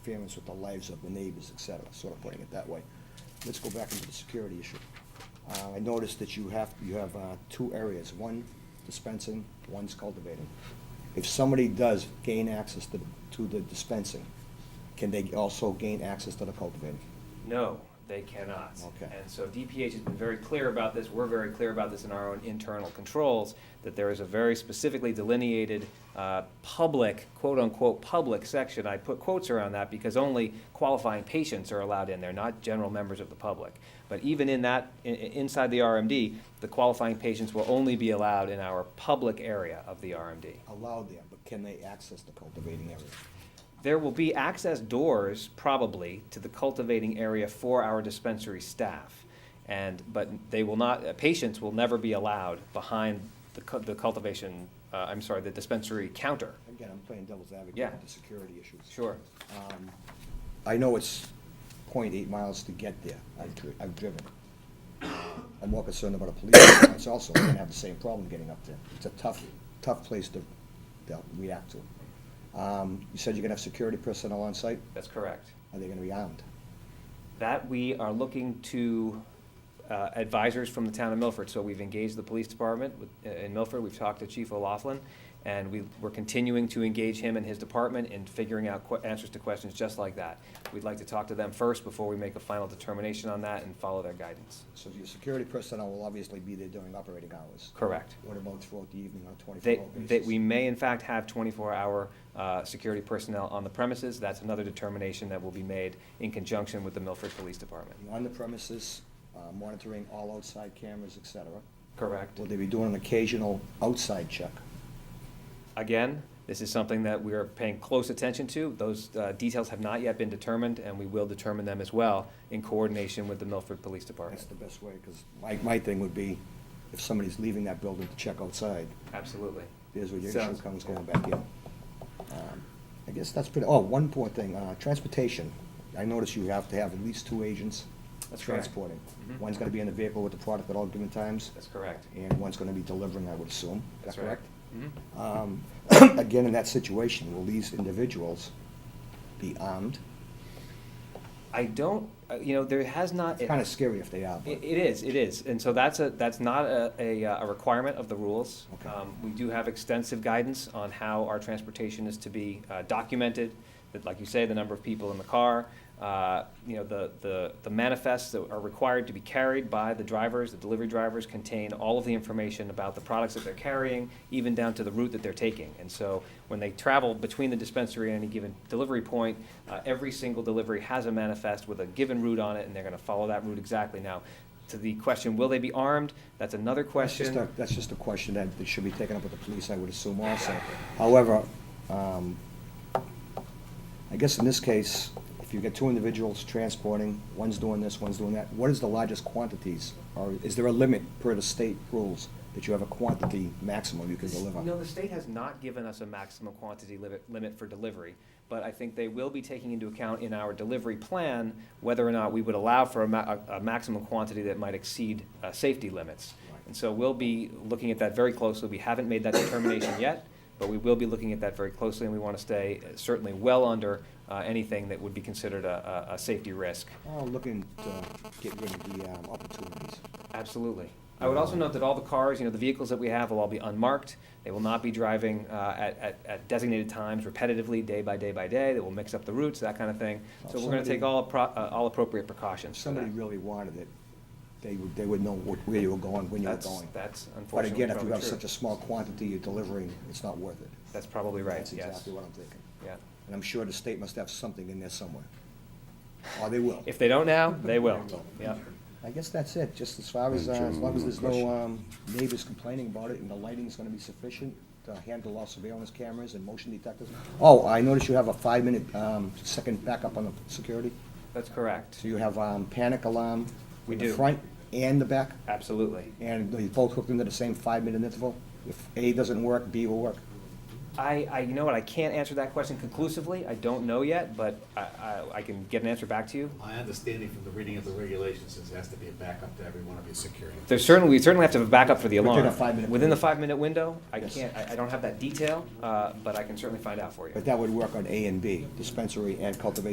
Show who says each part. Speaker 1: interference with the lives of the neighbors, et cetera, sort of putting it that way. Let's go back into the security issue. Uh, I noticed that you have, you have, uh, two areas, one dispensing, one's cultivating. If somebody does gain access to, to the dispensing, can they also gain access to the cultivating?
Speaker 2: No, they cannot.
Speaker 1: Okay.
Speaker 2: And so DPH has been very clear about this, we're very clear about this in our own internal controls, that there is a very specifically delineated, uh, public, quote-unquote, public section. I put quotes around that because only qualifying patients are allowed in there, not general members of the public. But even in that, i- i- inside the RMD, the qualifying patients will only be allowed in our public area of the RMD.
Speaker 1: Allowed there, but can they access the cultivating area?
Speaker 2: There will be access doors, probably, to the cultivating area for our dispensary staff. And, but they will not, uh, patients will never be allowed behind the cu- the cultivation, uh, I'm sorry, the dispensary counter.
Speaker 1: Again, I'm playing devil's advocate
Speaker 2: Yeah.
Speaker 1: with the security issues.
Speaker 2: Sure.
Speaker 1: Um, I know it's 0.8 miles to get there. I've, dri- I've driven. I'm more concerned about a police response also. We're gonna have the same problem getting up there. It's a tough, tough place to, to react to. Um, you said you're gonna have security personnel on site?
Speaker 2: That's correct.
Speaker 1: Are they gonna be armed?
Speaker 2: That we are looking to uh, advisors from the town of Milford. So we've engaged the police department with- uh, in Milford, we've talked to Chief O'Laughlin, and we, we're continuing to engage him and his department in figuring out que- answers to questions just like that. We'd like to talk to them first before we make a final determination on that and follow their guidance.
Speaker 1: So your security personnel will obviously be there during operating hours.
Speaker 2: Correct.
Speaker 1: What about throughout the evening on a
Speaker 2: That,
Speaker 1: 24-hour basis?
Speaker 2: that we may in fact have twenty-four hour uh, security personnel on the premises. That's another determination that will be made in conjunction with the Milford Police Department.
Speaker 1: On the premises, uh, monitoring all outside cameras, et cetera.
Speaker 2: Correct.
Speaker 1: Will they be doing an occasional outside check?
Speaker 2: Again, this is something that we are paying close attention to. Those uh, details have not yet been determined, and we will determine them as well in coordination with the Milford Police Department.
Speaker 1: That's the best way, because my, my thing would be, if somebody's leaving that building to check outside,
Speaker 2: Absolutely.
Speaker 1: there's where your issue
Speaker 2: Sounds-
Speaker 1: comes going back in. Um, I guess that's pretty, oh, one poor thing, uh, transportation. I notice you have to have at least two agents
Speaker 2: That's correct.
Speaker 1: transporting.
Speaker 2: Mhm.
Speaker 1: One's gonna be in the vehicle with the product at all given times,
Speaker 2: That's correct.
Speaker 1: and one's gonna be delivering, I would assume. Is that
Speaker 2: That's right.
Speaker 1: correct?
Speaker 2: Mhm.
Speaker 1: Um, Again, in that situation, will these individuals be armed?
Speaker 2: I don't, uh, you know, there has not.
Speaker 1: It's kinda scary if they are, but.
Speaker 2: It it is, it is, and so that's a, that's not a, a uh, a requirement of the rules.
Speaker 1: Okay.
Speaker 2: Um, We do have extensive guidance on how our transportation is to be uh, documented, that, like you say, the number of people in the car, uh, you know, the, the the manifests that are required to be carried by the drivers, the delivery drivers contain all of the information about the products that they're carrying, even down to the route that they're taking. And so when they travel between the dispensary and any given delivery point, uh, every single delivery has a manifest with a given route on it, and they're gonna follow that route exactly. Now, to the question, will they be armed? That's another
Speaker 1: That's just
Speaker 2: question.
Speaker 1: a, that's just a question that that should be taken up with the police, I would assume also. However, um, I guess in this case, if you get two individuals transporting, one's doing this, one's doing that, what is the largest quantities? Or is there a limit per the state rules that you have a quantity maximum you can deliver?
Speaker 2: No, the state has not given us a maximum quantity limit, limit for delivery, but I think they will be taking into account in our delivery plan whether or not we would allow for a ma- a, a maximum quantity that might exceed, uh, safety limits.
Speaker 1: Right.
Speaker 2: And so we'll be looking at that very closely. We haven't made that determination yet, but we will be looking at that very closely, and we want to stay uh, certainly well under, uh, anything that would be considered a, a, a safety risk.
Speaker 1: Oh, looking to get rid of the um, opportunities.
Speaker 2: Absolutely. I would also note that all the cars, you know, the vehicles that we have will all be unmarked. They will not be driving uh, at- at at designated times repetitively, day by day by day. They will mix up the routes, that kind of thing. So we're going to take all appro- uh, all appropriate
Speaker 1: If
Speaker 2: precautions for
Speaker 1: somebody
Speaker 2: that.
Speaker 1: really wanted it, they would, they would know wh- where you were going, when you were
Speaker 2: That's-
Speaker 1: going.
Speaker 2: That's
Speaker 1: But
Speaker 2: unfortunately
Speaker 1: again, if you
Speaker 2: probably
Speaker 1: have
Speaker 2: true.
Speaker 1: such a small quantity you're delivering, it's not worth it.
Speaker 2: That's probably right,
Speaker 1: That's
Speaker 2: yes.
Speaker 1: exactly what I'm thinking.
Speaker 2: Yeah.
Speaker 1: And I'm sure the state must have something in there somewhere. Or they will.
Speaker 2: If they don't now, they will.
Speaker 1: They will.
Speaker 2: Yeah.
Speaker 1: I guess that's it, just as far as, uh, as long as there's no um, neighbors complaining about it and the lighting's gonna be sufficient to handle all surveillance cameras and motion detectors. Oh, I noticed you have a five-minute, um, second backup on the security.
Speaker 2: That's correct.
Speaker 1: So you have um, panic alarm
Speaker 2: We
Speaker 1: in the
Speaker 2: do.
Speaker 1: front and the back,
Speaker 2: Absolutely.
Speaker 1: and they both hooked into the same five-minute interval. If A doesn't work, B will work.
Speaker 2: I, I, you know what, I can't answer that question conclusively. I don't know yet, but I- I I can get an answer back to you.
Speaker 3: My understanding from the reading of the regulations is there has to be a backup to every one of your security.
Speaker 2: There's certainly, we certainly have to have a backup for the
Speaker 1: Within
Speaker 2: alarm.
Speaker 1: a five-minute
Speaker 2: Within the
Speaker 1: period.
Speaker 2: five-minute window, I
Speaker 1: Yes.
Speaker 2: can't, I, I don't have that detail, uh, but I can certainly find out for you.
Speaker 1: But that would work on A and B, dispensary and cultivation